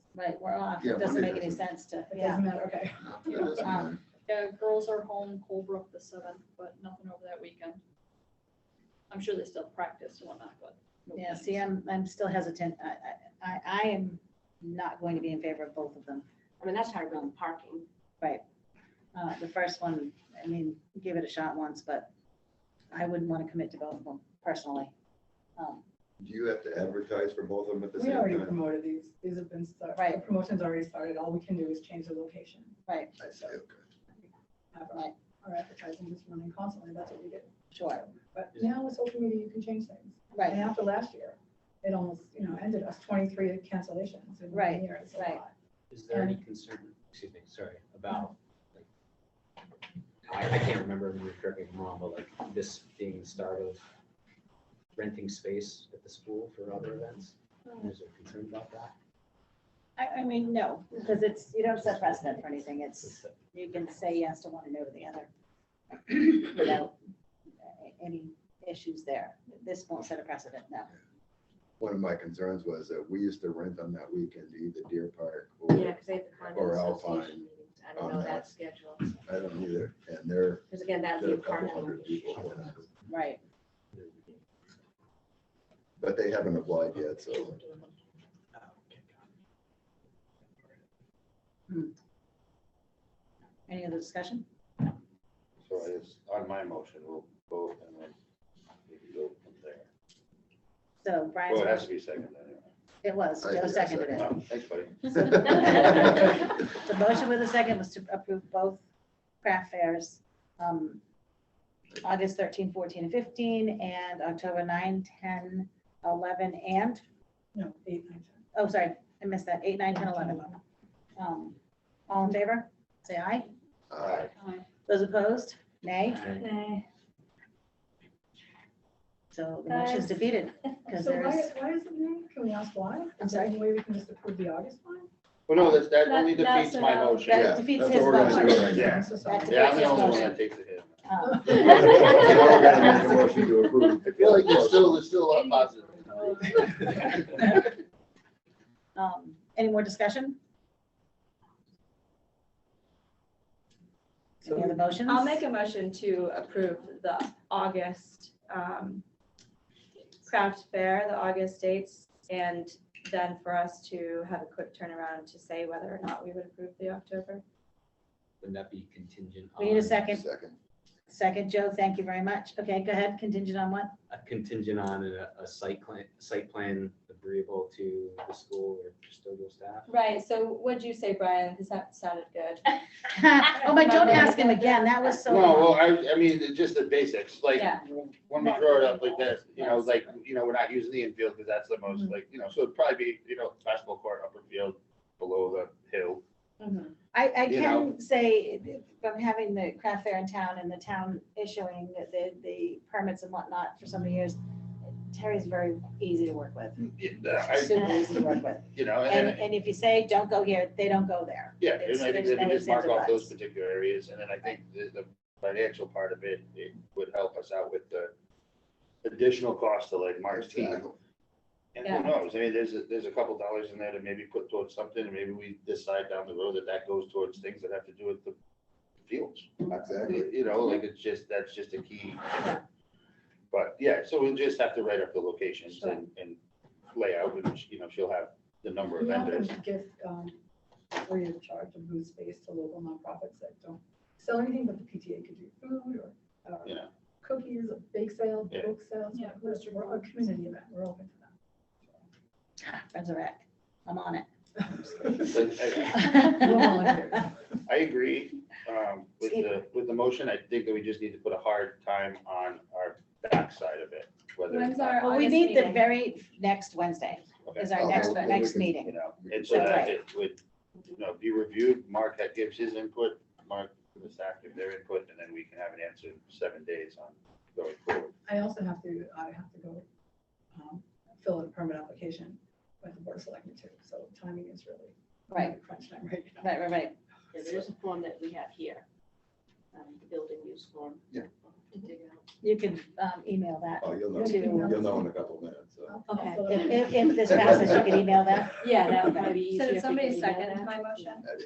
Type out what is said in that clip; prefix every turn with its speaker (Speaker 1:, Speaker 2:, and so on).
Speaker 1: right, we're off.
Speaker 2: Yeah,
Speaker 1: It doesn't
Speaker 2: Monday
Speaker 1: make any
Speaker 2: doesn't.
Speaker 1: sense to,
Speaker 3: It
Speaker 1: yeah.
Speaker 3: doesn't matter, okay.
Speaker 2: Yeah, that's
Speaker 1: Um,
Speaker 4: Yeah, girls are home Colebrook the seventh, but nothing over that weekend. I'm sure they still practice and whatnot, but. no
Speaker 1: Yeah,
Speaker 4: games.
Speaker 1: see, I'm, I'm still hesitant. I, I- I, I am not going to be in favor of both of them.
Speaker 5: I mean, that's hard on parking.
Speaker 1: Uh, The first one, I mean, give it a shot once, but I wouldn't want to commit to both of them personally. Um,
Speaker 2: Do you have to advertise for both of them at the
Speaker 3: We
Speaker 2: same
Speaker 3: already
Speaker 2: time?
Speaker 3: promoted these, these have been started.
Speaker 1: Right.
Speaker 3: The promotion's already started, all we can do is change the location.
Speaker 1: Right,
Speaker 2: I see, okay.
Speaker 3: Have
Speaker 1: Right.
Speaker 3: our our advertising just running constantly, that's what we did.
Speaker 1: sure,
Speaker 3: But
Speaker 6: Yeah.
Speaker 3: now with social media, you can change things. And
Speaker 1: right,
Speaker 3: after last year, it almost, you know, ended us twenty-three cancellations in one
Speaker 1: Right,
Speaker 3: year, it's a
Speaker 1: right.
Speaker 3: lot.
Speaker 6: Is there
Speaker 1: Um,
Speaker 6: any concern, excuse me, sorry, about, like, I, I can't remember, if you correct me if I'm wrong, but like this being the start of renting space at the school for other events?
Speaker 1: Hmm.
Speaker 6: Is there concern about that?
Speaker 1: I, I mean, no, because it's, you don't set precedent for anything. It's,
Speaker 6: Is that-
Speaker 1: you can say yes to one and no to the other without uh, any issues there. This won't set a precedent, no.
Speaker 2: One of my concerns was that we used to rent on that weekend to either Deer Park
Speaker 5: Yeah,
Speaker 2: or,
Speaker 5: because they have the
Speaker 2: Or
Speaker 5: condo association
Speaker 2: Alpine
Speaker 5: meetings. I don't
Speaker 2: on
Speaker 5: know
Speaker 2: that.
Speaker 5: that schedule.
Speaker 2: I don't either, and they're,
Speaker 5: Because again, that'd
Speaker 2: they're
Speaker 5: be
Speaker 2: a
Speaker 5: a
Speaker 2: couple
Speaker 5: parking.
Speaker 2: hundred people.
Speaker 5: location.
Speaker 1: Right,
Speaker 2: But they haven't applied yet, so
Speaker 6: oh,
Speaker 1: any other discussion?
Speaker 7: So it's on my motion, we'll vote and then we can go from there.
Speaker 1: So
Speaker 7: Well, it has
Speaker 1: Brian's,
Speaker 7: to be second anyway.
Speaker 1: it was,
Speaker 2: I
Speaker 1: Joe
Speaker 2: think I
Speaker 1: seconded it.
Speaker 7: No, Thanks, buddy.
Speaker 1: The motion with a second was to approve both craft fairs, um, August 13, 14, and 15, and October 9, 10, 11, and,
Speaker 3: No, eight, nine, ten.
Speaker 1: oh, sorry, I missed that, 8, 9, 10, 11. Um, All in favor? Say aye.
Speaker 2: I
Speaker 4: Aye.
Speaker 1: Those opposed? Nay.
Speaker 5: Nay.
Speaker 1: So the motion's defeated, because
Speaker 3: So
Speaker 1: there
Speaker 3: why,
Speaker 1: is,
Speaker 3: why is it new? Can we ask why?
Speaker 1: I'm
Speaker 3: Is there
Speaker 1: sorry?
Speaker 3: any way we can just approve the August one?
Speaker 7: Well, no, that, that
Speaker 4: That-
Speaker 7: only
Speaker 4: that's
Speaker 7: defeats my
Speaker 4: enough.
Speaker 7: motion.
Speaker 1: that
Speaker 2: Yeah,
Speaker 1: defeats
Speaker 2: that's
Speaker 1: his
Speaker 2: what we're gonna do
Speaker 1: motion.
Speaker 2: right
Speaker 7: Yeah.
Speaker 3: I'm so sorry.
Speaker 1: That's
Speaker 7: Yeah, I'm the
Speaker 1: Defeats
Speaker 7: only one
Speaker 1: motion.
Speaker 7: that takes a hit.
Speaker 1: Um,
Speaker 2: Now we're gonna make a motion to approve.
Speaker 7: I feel like there's still, there's still a lot positive.
Speaker 1: um, Any more discussion? Any other motions?
Speaker 8: I'll make a motion to approve the August um, craft fair, the August dates, and then for us to have a quick turnaround to say whether or not we would approve the October.
Speaker 6: Wouldn't that be contingent on?
Speaker 1: We need a second.
Speaker 2: Second.
Speaker 1: Second, Joe, thank you very much. Okay, go ahead, contingent on what?
Speaker 6: A contingent on a, a site plan, site plan agreeable to the school or custodial staff?
Speaker 8: Right, so what'd you say, Brian? Because that sounded good.
Speaker 1: Oh, but don't ask him again, that was so.
Speaker 7: No, well, I, I mean, it's just the basics, like,
Speaker 8: Yeah.
Speaker 7: when we throw it up like this, you know, like, you know, we're not using the infield because that's the most,
Speaker 1: Mm-hmm.
Speaker 7: like, you know, so it'd probably be, you know, basketball court, upper field, below the hill.
Speaker 8: Mhm.
Speaker 1: I, I
Speaker 7: you
Speaker 1: can say, from having the craft fair in town and the town issuing the, the permits and whatnot for so many years, Terry's very easy to work with,
Speaker 7: Mm. Yeah, I-
Speaker 1: super easy to work with.
Speaker 7: You know,
Speaker 1: And,
Speaker 7: and,
Speaker 1: and if you say, don't go here, they don't go there.
Speaker 7: yeah,
Speaker 1: It's-
Speaker 7: and I think
Speaker 1: there's
Speaker 7: they can
Speaker 1: no
Speaker 7: just mark off those
Speaker 1: incentivized.
Speaker 7: particular areas, and then I think the, the financial part of it, it would help us out with the additional cost to like Mark's team. And
Speaker 8: Yeah.
Speaker 7: who knows, I mean, there's, a- there's a couple dollars in there to maybe put towards something, and maybe we decide down the road that that goes towards things that have to do with the fields.
Speaker 2: Exactly.
Speaker 7: You know, like it's just, that's just a key. But yeah, so we'll just have to write up the locations and, and layout, and, you know, she'll have the number of
Speaker 3: We
Speaker 7: vendors.
Speaker 3: often give, um, free of charge of booth space to local nonprofits that don't sell anything, but the PTA could do food or, uh,
Speaker 7: Yeah.
Speaker 3: cookies, a bake sale,
Speaker 7: Yeah.
Speaker 3: book sales,
Speaker 4: Yeah.
Speaker 3: we're we're a community event, we're open to that.
Speaker 1: Friends of rec, I'm on
Speaker 7: But I-
Speaker 1: it.
Speaker 3: We'll volunteer.
Speaker 7: I agree um, with the, with the motion. I think that we just need to put a hard time on our backside of it, whether,
Speaker 8: When's our
Speaker 1: Well, we
Speaker 8: August
Speaker 1: need the
Speaker 8: meeting?
Speaker 1: very next Wednesday is our
Speaker 2: Okay.
Speaker 1: next,
Speaker 2: Okay.
Speaker 1: next
Speaker 7: you
Speaker 1: meeting.
Speaker 7: know, and so
Speaker 1: That's
Speaker 7: that
Speaker 1: right.
Speaker 7: it would, you know, be reviewed. Mark that gives his input, Mark, the staff give their input, and then we can have an answer in seven days on going forward.
Speaker 3: I also have to, I have to go, um, fill in a permit application with the board of selectmen too, so timing is really.
Speaker 1: Right,
Speaker 3: Crunch time right now.
Speaker 1: right, right, right.
Speaker 5: Yeah, There is a form that we have here, um, the building use form.
Speaker 2: Yeah.
Speaker 5: To dig out.
Speaker 1: You can um, email that.
Speaker 2: Oh, you'll know,
Speaker 1: To-
Speaker 2: you'll know in a couple minutes, so.
Speaker 5: Okay.
Speaker 1: If, if- if this passes, you can email that.
Speaker 5: Yeah, that would probably be
Speaker 8: So
Speaker 5: easier. if we
Speaker 8: did
Speaker 5: could
Speaker 8: somebody
Speaker 5: email
Speaker 8: second
Speaker 5: that.
Speaker 8: my motion?